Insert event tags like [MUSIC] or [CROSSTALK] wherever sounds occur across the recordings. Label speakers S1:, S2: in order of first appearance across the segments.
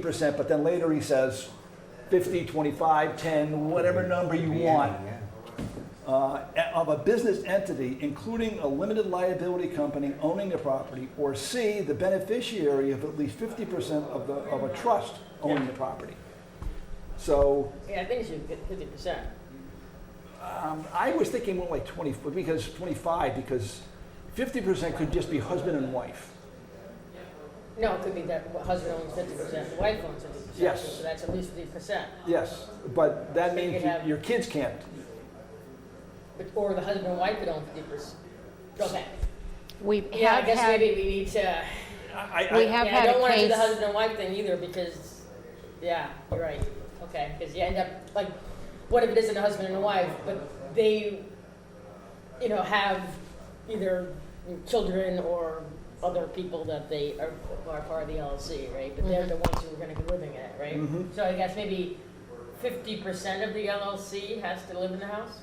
S1: percent, but then later he says 50, 25, 10, whatever number you want, uh, of a business entity, including a limited liability company owning the property, or C, the beneficiary of at least 50% of the, of a trust owning the property. So
S2: Yeah, I think it should be fifty percent.
S1: um, I was thinking more like 20, because 25, because 50% could just be husband and wife.
S2: No, it could be that husband owns fifty percent, the wife owns fifty percent.
S1: Yes.
S2: So that's at least fifty percent.
S1: Yes, but that
S2: So you
S1: means
S2: could have-
S1: your kids can't.
S2: But, or the husband and wife could own fifty percent. Okay.
S3: We
S2: Yeah, I
S3: have
S2: guess
S3: had,
S2: maybe we need to,
S1: I- I-
S3: we have
S2: yeah, I
S3: had
S2: don't
S3: a
S2: wanna do the
S3: case,
S2: husband and wife thing either because, yeah, you're right. Okay, because you end up, like, what if it isn't a husband and a wife, but they, you know, have either children or other people that they are, are part of the LLC, right? But
S3: Mm-hmm.
S2: they're the ones who are gonna be living in it, right?
S1: Mhm.
S2: So I guess maybe fifty percent of the LLC has to live in the house?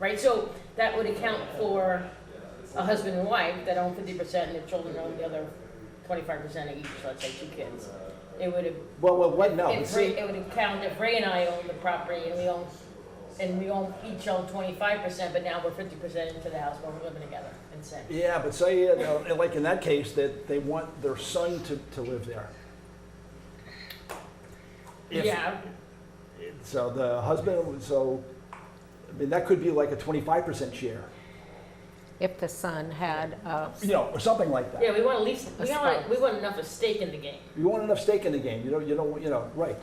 S2: Right, so that would account for a husband and wife that own fifty percent and their children own the other twenty-five percent of each, let's say two kids. It would have,
S1: Well, well, what, no.
S2: if Ray, it would account if Ray and I own the property and we own, and we own, each own twenty-five percent, but now we're fifty percent into the house while we're living together and saying,
S1: Yeah, but say, you know, and like in that case, that they want their son to, to live there. If-
S2: yeah,
S1: So the husband, would- so, I mean, that could be like a twenty-five percent share,
S3: if the son had, uh,
S1: you know, or something like that.
S2: yeah, we want at least, we
S3: A
S2: want,
S3: spouse.
S2: we want enough of stake in the game.
S1: You want enough stake in the game, you don't, you don't, you know, right,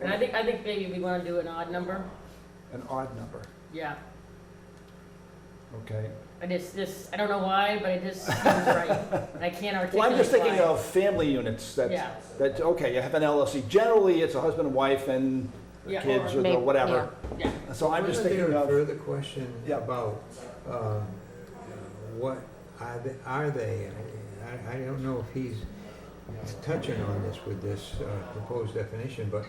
S2: And I think, I think maybe we wanna do an odd number,
S1: an odd number,
S2: yeah.
S1: okay?
S2: I just, this, I don't know why, but it just seems
S1: [LAUGHS]
S2: right. I can't articulate
S1: Well, I'm just thinking
S2: why.
S1: of family units
S2: Yeah.
S1: that, that, okay, you have an LLC, generally, it's a husband and wife and the
S2: Yeah,
S1: kids
S2: or
S1: or the
S3: may-
S1: whatever.
S2: Yeah.
S1: So I'm just thinking
S4: Wasn't there
S1: of,
S4: a further question
S1: Yeah.
S4: about, um, what are they, are they? I, I don't know if he's touching on this with this uh, proposed definition, but,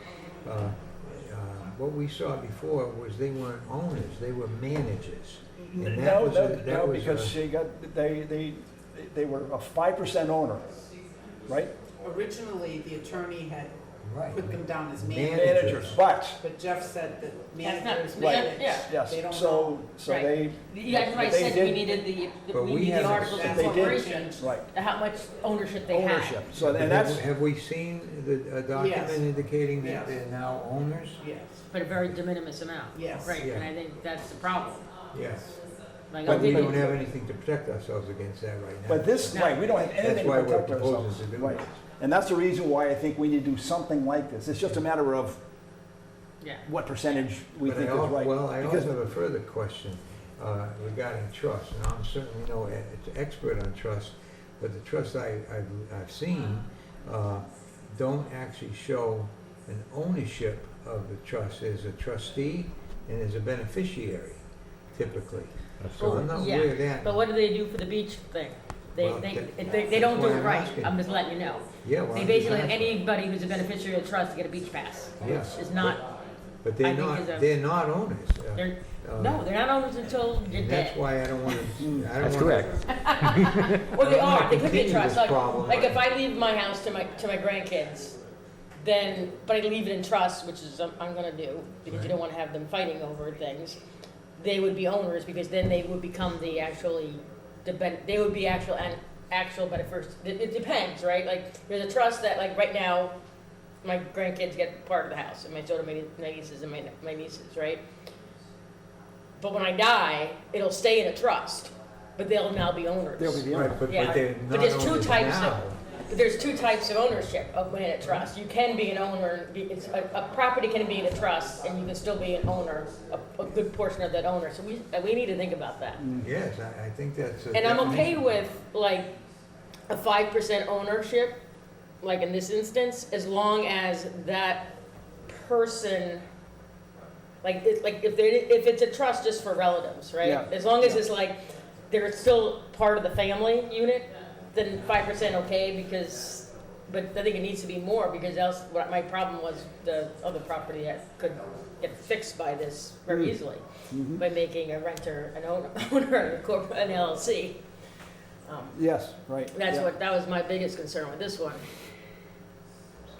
S4: uh, uh, what we saw before was they weren't owners, they were managers. And that
S1: no,
S4: was, a-
S1: no,
S4: that
S1: no,
S4: was
S1: because
S4: a-
S1: she got, they, they, they were a five percent owner, right?
S5: Originally, the attorney had
S4: right.
S5: put them down as
S4: Manage-
S5: managers,
S1: managers, but,
S5: but Jeff said that
S2: That's not-
S5: managers
S2: Right.
S5: manage.
S2: yeah.
S1: yes,
S5: They don't
S1: so,
S5: know.
S1: so
S2: Right.
S1: they,
S2: Yeah, that's why I
S1: They
S2: said
S1: did-
S2: we needed the, the-
S4: But
S2: we
S4: we
S2: needed
S4: haven't-
S2: the articles of
S5: They did.
S2: incorporation,
S1: right,
S2: how much ownership they had.
S1: ownership, so,
S4: But
S1: and
S4: have-
S1: that's,
S4: Have we seen the, a document
S5: Yes.
S4: indicating that
S5: Yes.
S4: they're now owners?
S5: Yes,
S2: But a very de minimis amount.
S5: Yes.
S2: Right, and
S4: Yeah.
S2: I think that's the problem.
S4: Yes.
S2: Like, I
S4: But we
S2: think-
S4: don't have anything to protect ourselves against that right now.
S1: but this,
S2: No.
S1: right, we don't have anything
S4: That's
S1: to
S4: why we're
S1: protect
S4: proposing
S1: ourselves.
S4: to do
S1: Right.
S4: this.
S1: And that's the reason why I think we need to do something like this, it's just a matter of
S2: Yeah.
S1: what percentage we
S4: But I
S1: think is
S4: al-
S1: right.
S4: Well, I
S1: Because-
S4: also have a further question uh, regarding trust. Now, I'm certainly no e- expert on trust, but the trusts I, I've, I've seen uh, don't actually show an ownership of the trust. There's a trustee and there's a beneficiary typically. So I'm not
S2: Yeah.
S4: aware of that.
S2: But what do they do for the beach thing? They,
S4: Well,
S2: they,
S4: that-
S2: they, they don't do
S4: that's why
S2: it
S4: I'm
S2: right,
S4: asking.
S2: I'm just letting you know.
S4: Yeah, well,
S2: They
S4: I'm
S2: basically,
S4: just asking.
S2: anybody who's a beneficiary of the trust to get a beach pass.
S4: Yes.
S2: It's not,
S4: But
S2: I
S4: they're
S2: think
S4: not,
S2: is a-
S4: they're not owners. Uh,
S2: they're,
S4: uh,
S2: no, they're not owners until you're
S4: And
S2: dead.
S4: that's why I don't want to, I
S6: That's
S4: don't want to
S6: correct.
S2: Well, they
S4: I'm gonna
S2: are. They could be a
S4: continue
S2: trust.
S4: this
S2: Like,
S4: problem.
S2: like if I leave my house to my to my grandkids, then but I leave it in trust, which is um, I'm, I'm gonna do because you
S4: Right.
S2: don't want to have them fighting over things. They would be owners because then they would become the actually the ben, they would be actual and actual but first it, it depends right like there's a trust that like right now my grandkids get part of the house and my children my nieces and my, my nieces right but when i die it'll stay in a trust but they'll now be owners
S1: They'll be the
S4: Right,
S1: owner.
S4: but,
S2: Yeah.
S4: but they're
S2: But
S4: not
S2: there's two
S4: owners
S2: types of-
S4: now.
S2: but there's two types of ownership of land at trust. You can be an owner, be- it's, a, a property can be in a trust, and you can still be an owner, a, a good portion of that owner, so we, uh, we need to think about that.
S4: Yes, I, I think that's a.
S2: And I'm okay
S4: definition.
S2: with, like, a five percent ownership, like in this instance, as long as that person, like, it, like, if there, if it's a trust just for relatives,
S1: Yeah.
S2: right? As long as it's like, they're still part of the family unit, then five percent okay, because, but I think it needs to be more, because else, what my problem was the other property that could get fixed by this very
S1: Mm.
S2: easily by making a renter an owner, [LAUGHS] owner a corp- an LLC. Um,
S1: Yes, right.
S2: That's
S1: yeah.
S2: what, that was my biggest concern with this one.